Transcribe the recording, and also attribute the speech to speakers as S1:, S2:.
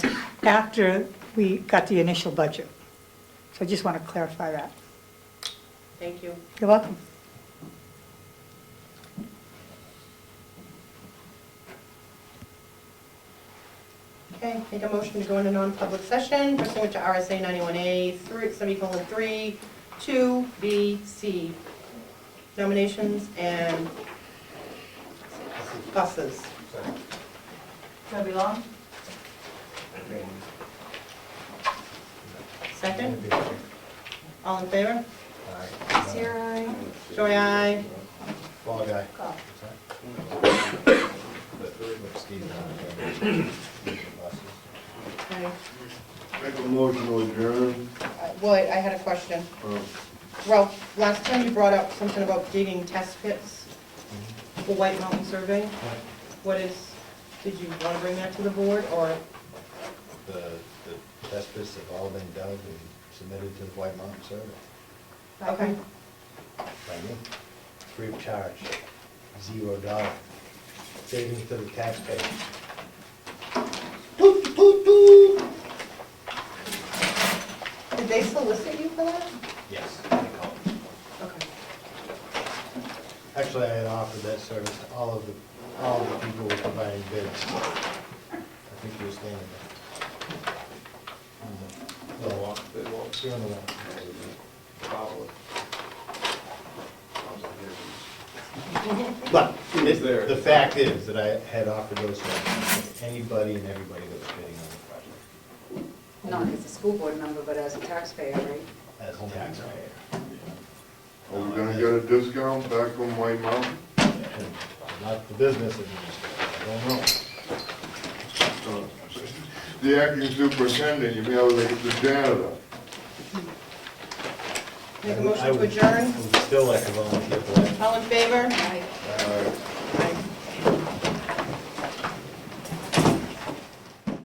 S1: after we got the initial budget. So I just want to clarify that.
S2: Thank you.
S1: You're welcome.
S2: Okay, make a motion to go into non-public session pursuant to RSA 91A through semicolon 3, 2, B, C. Nominations and buses.
S3: Debbie Long?
S2: Second, all in favor?
S3: Sierra, aye.
S2: Joy, aye.
S4: Fall guy.
S3: Goff.
S2: Okay.
S4: Make a motion to adjourn.
S2: Uh, Lloyd, I had a question.
S5: Uh,
S2: Ralph, last time you brought up something about digging test pits for White Mountain Survey. What is, did you want to bring that to the board or?
S6: The, the test pits have all been dug and submitted to the White Mountain Survey
S2: Okay,
S6: by me, free of charge, zero dollar. Savings to the taxpayer. Toot, toot, toot.
S2: did they solicit you for that?
S6: Yes, they called.
S2: Okay.
S6: Actually, I had offered that service to all of the, all of the people who were providing bids. I think you were standing there. On the- The walk, the walk. You're on the walk. But the the fact is that I had offered those services to anybody and everybody that was bidding on the project
S3: Not as a school board member, but as a taxpayer, right?
S6: as a taxpayer.
S5: Are we gonna get a discount back on White Mountain?
S6: And Not the business administrator, I don't know.
S5: Uh, The acting superintendent, you may have to get the janitor.
S2: Make a
S6: I
S2: motion
S6: would-
S2: to adjourn.
S6: I would still like to volunteer for that.
S2: All in favor?
S3: Aye.
S5: Uh,